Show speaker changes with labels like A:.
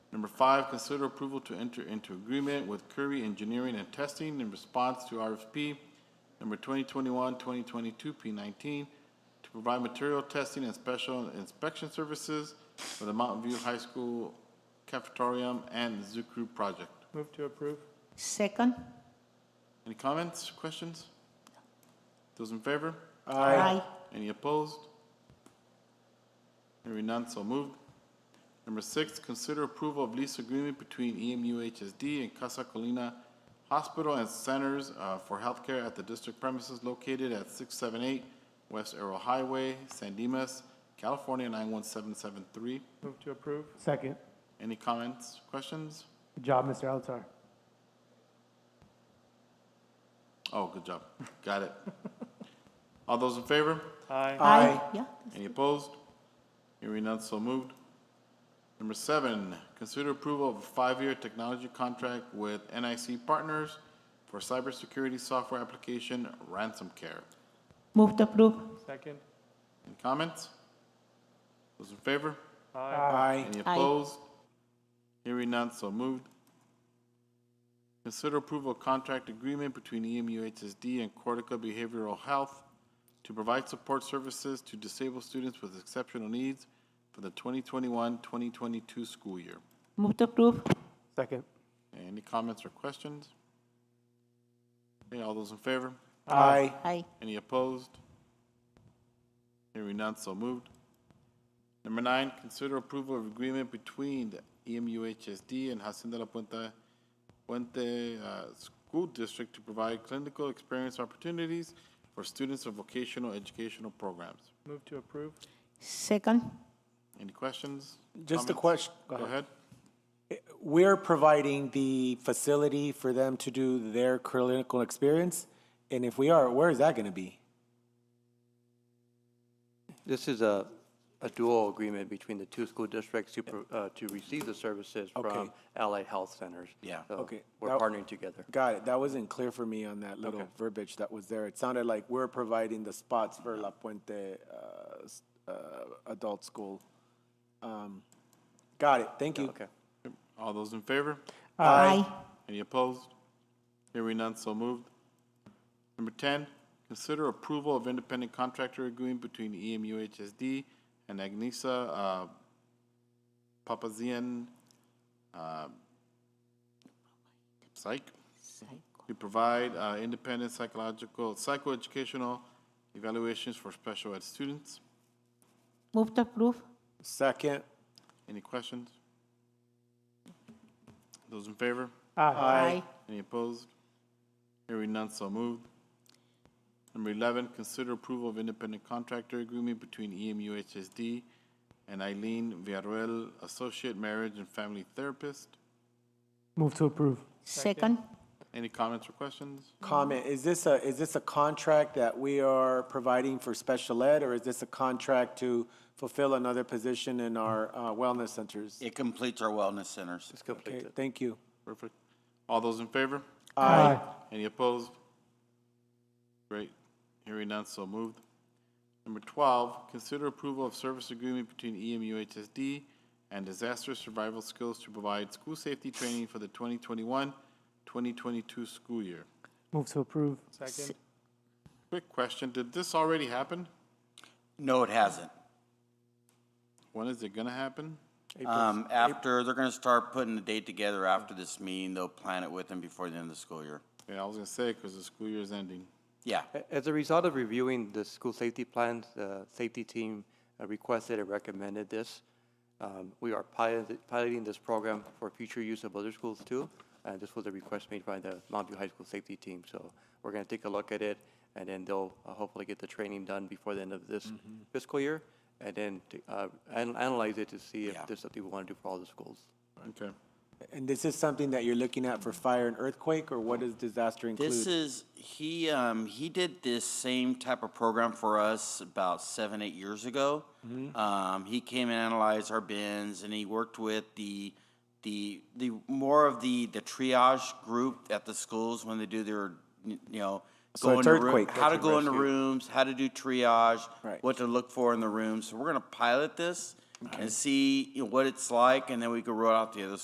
A: Number five, consider approval to enter into agreement with Curry Engineering and Testing in response to RFP number 2021-2022-P19 to provide material testing and special inspection services for the Mountain View High School cafetorium and Zoo Crew project.
B: Move to approve.
C: Second?
A: Any comments, questions? Those in favor?
C: Aye.
A: Any opposed? Hearing none, so moved. Number six, consider approval of lease agreement between E EMU HSD and Casa Colina Hospital and Centers uh, for Healthcare at the district premises located at 678 West Arrow Highway, San Dimas, California 91773.
B: Move to approve.
D: Second.
A: Any comments, questions?
D: Good job, Mr. Alatar.
A: Oh, good job. Got it. All those in favor?
B: Aye.
C: Aye. Yeah,
A: Any opposed? Hearing none, so moved. Number seven, consider approval of a five-year technology contract with NIC Partners for cybersecurity software application ransom care.
C: move to approve.
B: Second.
A: Any comments? Those in favor?
B: Aye.
A: Any opposed? Hearing none, so moved. Consider approval of contract agreement between E EMU HSD and Cortica Behavioral Health to provide support services to disabled students with exceptional needs for the 2021-2022 school year.
C: Move to approve.
D: Second.
A: Any comments or questions? Okay, all those in favor?
D: Aye.
C: Aye.
A: Any opposed? Hearing none, so moved. Number nine, consider approval of agreement between the E EMUHSD and Hacienda La Puente, Puente uh, School District to provide clinical experience opportunities for students of vocational educational programs.
B: Move to approve.
C: Second?
A: Any questions?
E: Just a
A: comments?
E: question.
A: Go ahead.
E: We're providing the facility for them to do their clinical experience, and if we are, where is that going to be?
F: This is a, a dual agreement between the two school districts to, pro- uh, to receive the services from
E: Okay.
F: allied health centers.
E: Yeah.
F: So
E: Okay.
F: We're
E: That-
F: partnering together.
E: Got it. That wasn't clear for me on that little verbiage that was there. It sounded like we're providing the spots for La Puente uh, s- uh, Adult School. Um, Got it. Thank you.
F: Okay.
A: All those in favor?
C: Aye.
A: Any opposed? Hearing none, so moved. Number 10, consider approval of independent contractor agreement between E EMU HSD and Agnisa uh, Papazian uh, Psych to provide uh, independent psychological, psychoeducational evaluations for special ed students.
C: Move to approve.
E: Second.
A: Any questions? Those in favor?
C: Aye.
A: Any opposed? Hearing none, so moved. Number 11, consider approval of independent contractor agreement between E EMU HSD and Eileen Villarreal, Associate Marriage and Family Therapist.
D: Move to approve.
C: Second?
A: Any comments or questions?
E: Comment, is this a, is this a contract that we are providing for special ed, or is this a contract to fulfill another position in our uh, wellness centers?
G: It completes our wellness centers.
F: It's
E: Okay,
F: completed.
E: thank you.
A: Perfect. All those in favor?
D: Aye.
A: Any opposed? Great. Hearing none, so moved. Number 12, consider approval of service agreement between E EMU HSD and Disaster Survival Skills to provide school safety training for the 2021-2022 school year.
D: Move to approve.
B: Second.
A: Quick question, did this already happen?
G: No, it hasn't.
A: When is it going to happen?
G: Um, after, they're gonna start putting the date together after this meeting, they'll plan it with them before the end of the school year.
A: Yeah, I was going to say, because the school year is ending.
G: Yeah,
F: A- As a result of reviewing the school safety plans, the safety team uh, requested and recommended this. Um, We are pilot- piloting this program for future use of other schools too. And this was a request made by the Mount View High School safety team. So we're going to take a look at it and then they'll uh, hopefully get the training done before the end of this fiscal year. And then to, uh, an- analyze it to see if
G: Yeah.
F: there's something we want to do for all the schools.
A: Okay.
E: And this is something that you're looking at for fire and earthquake, or what does disaster
G: this
E: include?
G: is, he, um, he did this same type of program for us about seven, eight years ago.
E: Mm-hmm.
G: Um, he came and analyzed our bins and he worked with the, the, the, more of the, the triage group at the schools when they do their, you know,
E: So
G: go
E: it's
G: into room-
E: earthquake,
G: How to
E: that's
G: go into rooms, how to do triage,
E: Right.
G: what to look for in the room. So we're gonna pilot this and see you know, what it's like and then we can roll out the other